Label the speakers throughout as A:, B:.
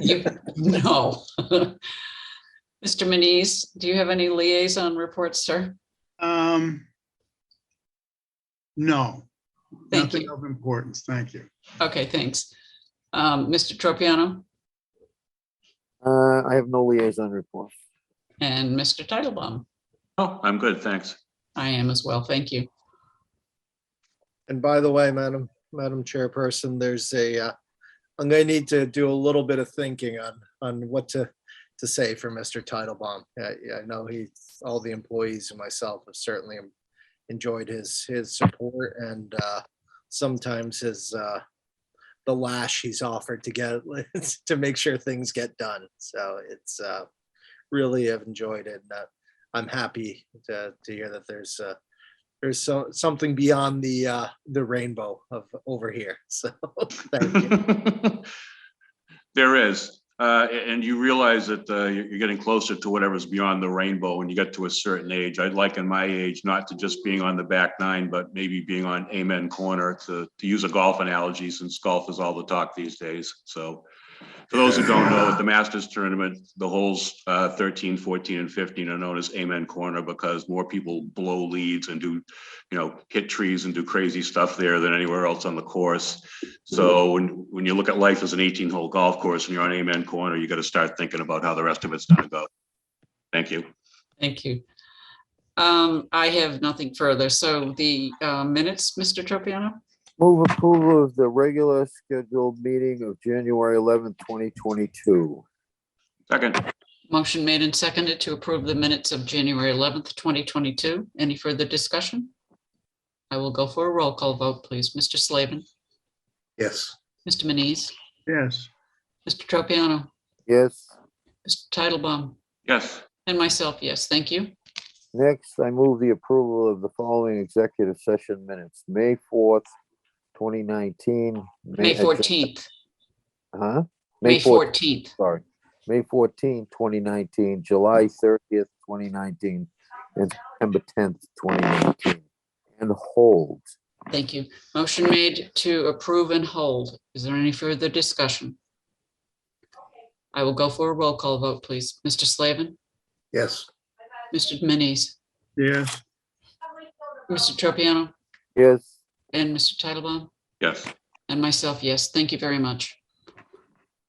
A: You- No. Mr. Manise, do you have any liaison reports, sir?
B: Um. No.
A: Thank
B: Nothing
A: you.
B: of importance, thank you.
A: Okay, thanks. Um, Mr. Tropiano
C: Uh, I have no liaison report.
A: and Mr. Titlebaum.
D: Oh, I'm good, thanks.
A: I am as well. Thank you.
E: And by the way, Madam, Madam Chairperson, there's a, uh, I'm going to need to do a little bit of thinking on, on what to, to say for Mr. Titlebaum. I, I know he, all the employees and myself have certainly enjoyed his, his support and, uh, sometimes his, uh, the lash he's offered to get, to make sure things get done. So it's, uh, really have enjoyed it. and, uh, I'm happy to, to hear that there's, uh, there's so, something beyond the uh, the rainbow of over here. So thank you.
D: There is, uh, a- and you realize that, uh, you're, you're getting closer to whatever's beyond the rainbow when you get to a certain age. I'd like in my age not to just being on the back nine, but maybe being on amen corner to, to use a golf analogy since golf is all the talk these days, so. For those who don't know, at the Masters Tournament, the holes, uh, 13, 14, and fifteen are known as amen corner because more people blow leads and do, you know, hit trees and do crazy stuff there than anywhere else on the course. So when, when you look at life as an eighteen hole golf course and you're on amen corner, you gotta start thinking about how the rest of it's gonna go. Thank you.
A: Thank you. Um, I have nothing further. So the uh, minutes, Mr. Tropiano?
C: Move approval of the regular scheduled meeting of January eleventh, twenty twenty-two.
D: Second,
A: Motion made and seconded to approve the minutes of January eleventh, twenty twenty-two. Any further discussion? I will go for a roll call vote, please. Mr. Slavin,
E: Yes.
A: Mr. Manise,
B: Yes,
A: Mr. Tropiano,
C: Yes,
A: Mr. Titlebaum,
D: yes,
A: and myself, yes, thank you.
C: next, I move the approval of the following executive session minutes, May fourth, twenty nineteen.
A: May fourteenth,
C: Huh?
A: May
C: 14th.
A: fourteenth.
C: sorry, May 14, 2019, July 30th, 2019, and September 10th, 2019, and hold.
A: Thank you. Motion made to approve and hold. Is there any further discussion? I will go for a roll call vote, please. Mr. Slavin,
E: Yes.
A: Mr. Manise,
B: yes,
A: Mr. Tropiano,
C: Yes,
A: and Mr. Titlebaum.
D: yes.
A: And myself, yes. Thank you very much.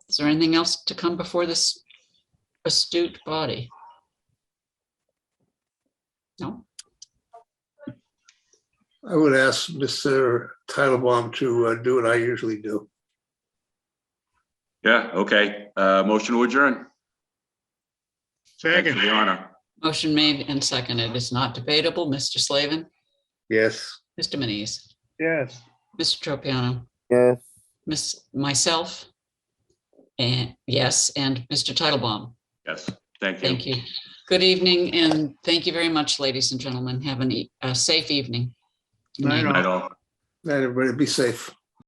A: Is there anything else to come before this astute body? No?
F: I would ask Mr. Titlebaum to uh, do what I usually do.
D: Yeah, okay. Uh, motion to adjourn. Thanks for
B: second,
D: The honor.
A: Motion made and seconded. It's not debatable. Mr. Slavin,
F: Yes.
A: Mr. Manise,
B: yes.
A: Mr. Tropiano,
C: yes,
A: Miss, myself, and yes, and Mr. Titlebaum.
D: Yes, thank you.
A: Thank you. Good evening, and thank you very much, ladies and gentlemen. Have an e- a safe evening. Good
B: Night
A: night.
B: all.
D: Night all.
F: Night, everybody. Be safe.